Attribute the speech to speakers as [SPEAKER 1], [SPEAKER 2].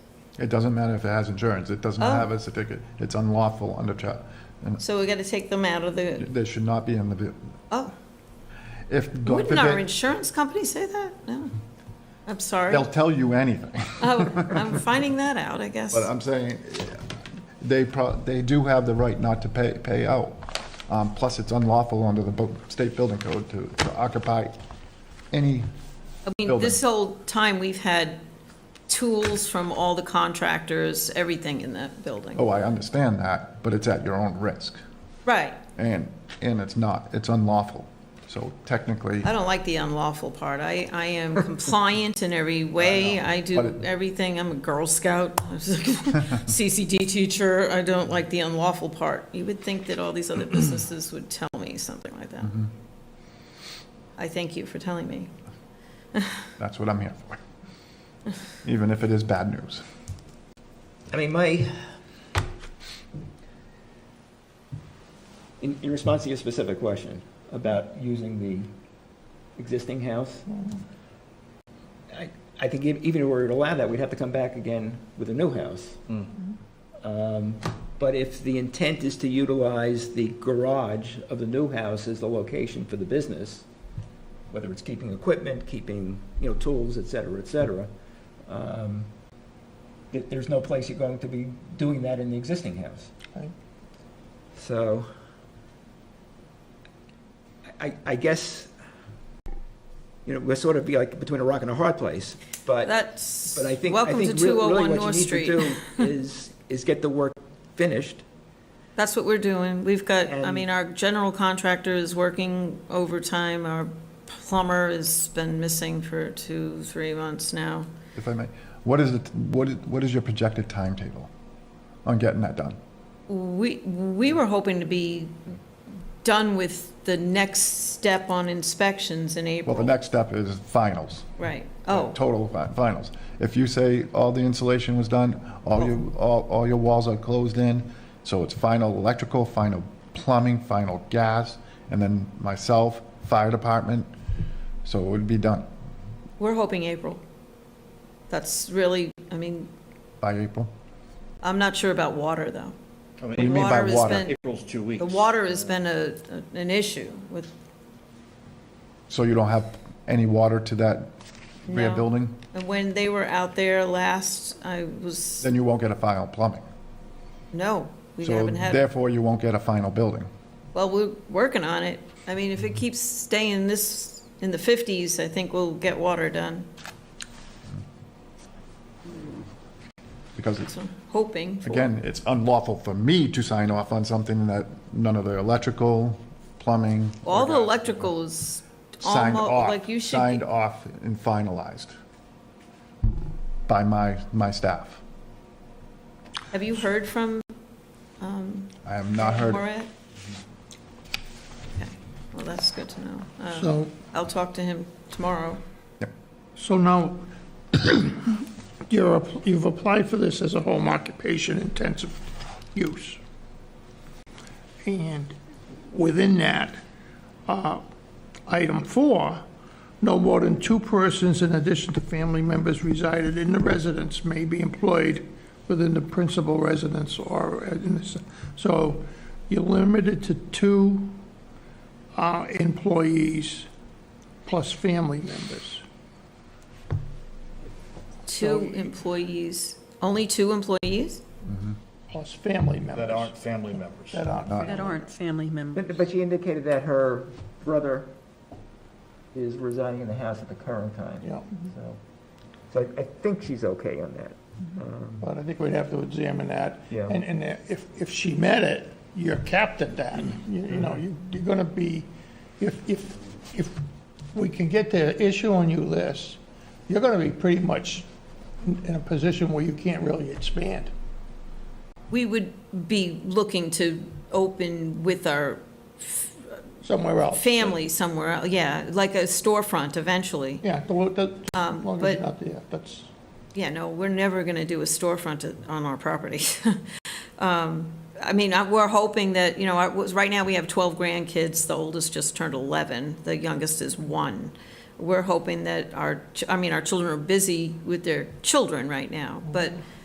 [SPEAKER 1] It doesn't matter if it has insurance, it doesn't
[SPEAKER 2] Oh.
[SPEAKER 1] have a certificate, it's unlawful under, cha- and
[SPEAKER 2] So we're gonna take them out of the,
[SPEAKER 1] they should not be in the, bu-
[SPEAKER 2] oh,
[SPEAKER 1] if, God
[SPEAKER 2] wouldn't our
[SPEAKER 1] forbid,
[SPEAKER 2] insurance company say that? No. I'm sorry.
[SPEAKER 1] they'll tell you anything.
[SPEAKER 2] Oh, I'm finding that out, I guess.
[SPEAKER 1] But I'm saying, they pro, they do have the right not to pay, pay out. Um, plus, it's unlawful under the bu- state building code to to occupy any,
[SPEAKER 2] I mean,
[SPEAKER 1] building.
[SPEAKER 2] this whole time, we've had tools from all the contractors, everything in that building.
[SPEAKER 1] oh, I understand that, but it's at your own risk.
[SPEAKER 2] Right.
[SPEAKER 1] And, and it's not, it's unlawful. So technically,
[SPEAKER 2] I don't like the unlawful part. I, I am compliant in every way. I
[SPEAKER 1] but
[SPEAKER 2] do
[SPEAKER 1] it-
[SPEAKER 2] everything. I'm a Girl Scout, I was like, CCD teacher. I don't like the unlawful part. You would think that all these other businesses would tell me something like that.
[SPEAKER 3] Mm-hmm.
[SPEAKER 2] I thank you for telling me.
[SPEAKER 1] that's what I'm here for. Even if it is bad news.
[SPEAKER 3] I mean, my. In, in response to your specific question about using the existing house, I, I think e- even if we were to allow that, we'd have to come back again with a new house. Um, But if the intent is to utilize the garage of the new house as the location for the business, whether it's keeping equipment, keeping, you know, tools, et cetera, et cetera, um, there- there's no place you're going to be doing that in the existing house.
[SPEAKER 1] Right.
[SPEAKER 3] So, I, I guess, you know, we're sort of be like between a rock and a hard place, but.
[SPEAKER 2] That's,
[SPEAKER 3] But I think, I
[SPEAKER 2] welcome to
[SPEAKER 3] think re- really
[SPEAKER 2] 201
[SPEAKER 3] what
[SPEAKER 2] North
[SPEAKER 3] you need to
[SPEAKER 2] Street.
[SPEAKER 3] do is, is get the work finished.
[SPEAKER 2] That's what we're doing. We've got, I
[SPEAKER 3] And-
[SPEAKER 2] mean, our general contractor is working overtime. Our plumber has been missing for two, three months now.
[SPEAKER 1] If I may, what is it, what is, what is your projected timetable on getting that done?
[SPEAKER 2] We, we were hoping to be done with the next step on inspections in
[SPEAKER 1] Well, the
[SPEAKER 2] April.
[SPEAKER 1] next step is finals.
[SPEAKER 2] Right, oh,
[SPEAKER 1] Total fi- finals. If you say all the insulation was done, all your, all, all your walls are closed in, so it's final electrical, final plumbing, final gas, and then myself, fire department, so it would be done
[SPEAKER 2] we're hoping April. That's really, I mean,
[SPEAKER 1] by April.
[SPEAKER 2] I'm not sure about water, though.
[SPEAKER 4] I
[SPEAKER 1] What do you
[SPEAKER 4] mean,
[SPEAKER 1] mean by
[SPEAKER 2] Water has
[SPEAKER 1] water?
[SPEAKER 2] been-
[SPEAKER 4] April's two weeks.
[SPEAKER 2] The water has been a, a- an issue with,
[SPEAKER 1] So you don't have any water to that rear
[SPEAKER 2] No.
[SPEAKER 1] building?
[SPEAKER 2] and when they were out there last, I was,
[SPEAKER 1] Then you won't get a final plumbing.
[SPEAKER 2] no, we
[SPEAKER 1] So
[SPEAKER 2] haven't had.
[SPEAKER 1] therefore, you won't get a final building.
[SPEAKER 2] Well, we're working on it. I mean, if it keeps staying this, in the 50s, I think we'll get water done.
[SPEAKER 1] Because it's,
[SPEAKER 2] So I'm hoping for.
[SPEAKER 1] again, it's unlawful for me to sign off on something that none of the electrical, plumbing. or
[SPEAKER 2] All the
[SPEAKER 1] gas-
[SPEAKER 2] electrical is
[SPEAKER 1] signed
[SPEAKER 2] almost,
[SPEAKER 1] off,
[SPEAKER 2] like you should.
[SPEAKER 1] signed
[SPEAKER 2] be-
[SPEAKER 1] off and finalized by my, my staff.
[SPEAKER 2] Have you heard from, um,
[SPEAKER 1] I have not heard, it. Mhm.
[SPEAKER 2] Morat? Okay, well, that's good to know. Uh,
[SPEAKER 5] So,
[SPEAKER 2] I'll talk to him tomorrow.
[SPEAKER 5] so now, you're, app- you've applied for this as a home occupation intensive use. And within that, uh, item four, no more than two persons in addition to family members resided in the residence may be employed within the principal residence or, uh, in this- so you're limited to two uh, employees plus family members.
[SPEAKER 2] Two employees, only two employees?
[SPEAKER 5] plus family members.
[SPEAKER 4] That aren't family members.
[SPEAKER 5] That aren't.
[SPEAKER 6] that aren't family members.
[SPEAKER 3] But but she indicated that her brother is residing in the house at the current time,
[SPEAKER 5] Yeah,
[SPEAKER 3] so. So I- I think she's okay on that. Um,
[SPEAKER 5] but I think we'd have to examine that.
[SPEAKER 3] Yeah.
[SPEAKER 5] And, and if, if she met it, you're capped at that. You,
[SPEAKER 4] Mm-hmm.
[SPEAKER 5] you know, you- you're gonna be, if, if, if we can get the issue on you list, you're gonna be pretty much in in a position where you can't really expand.
[SPEAKER 2] We would be looking to open with our
[SPEAKER 5] Somewhere else.
[SPEAKER 2] family somewhere, el- yeah, like a storefront eventually.
[SPEAKER 5] Yeah, the, the, as long as
[SPEAKER 2] but-
[SPEAKER 5] you're not there, that's,
[SPEAKER 2] Yeah, no, we're never going to do a storefront at- on our property. Um, I mean, I- we're hoping that, you know, I was- right now we have 12 grandkids, the oldest just turned 11, the youngest is one. We're hoping that our, ch- I mean, our children are busy with their children right now, but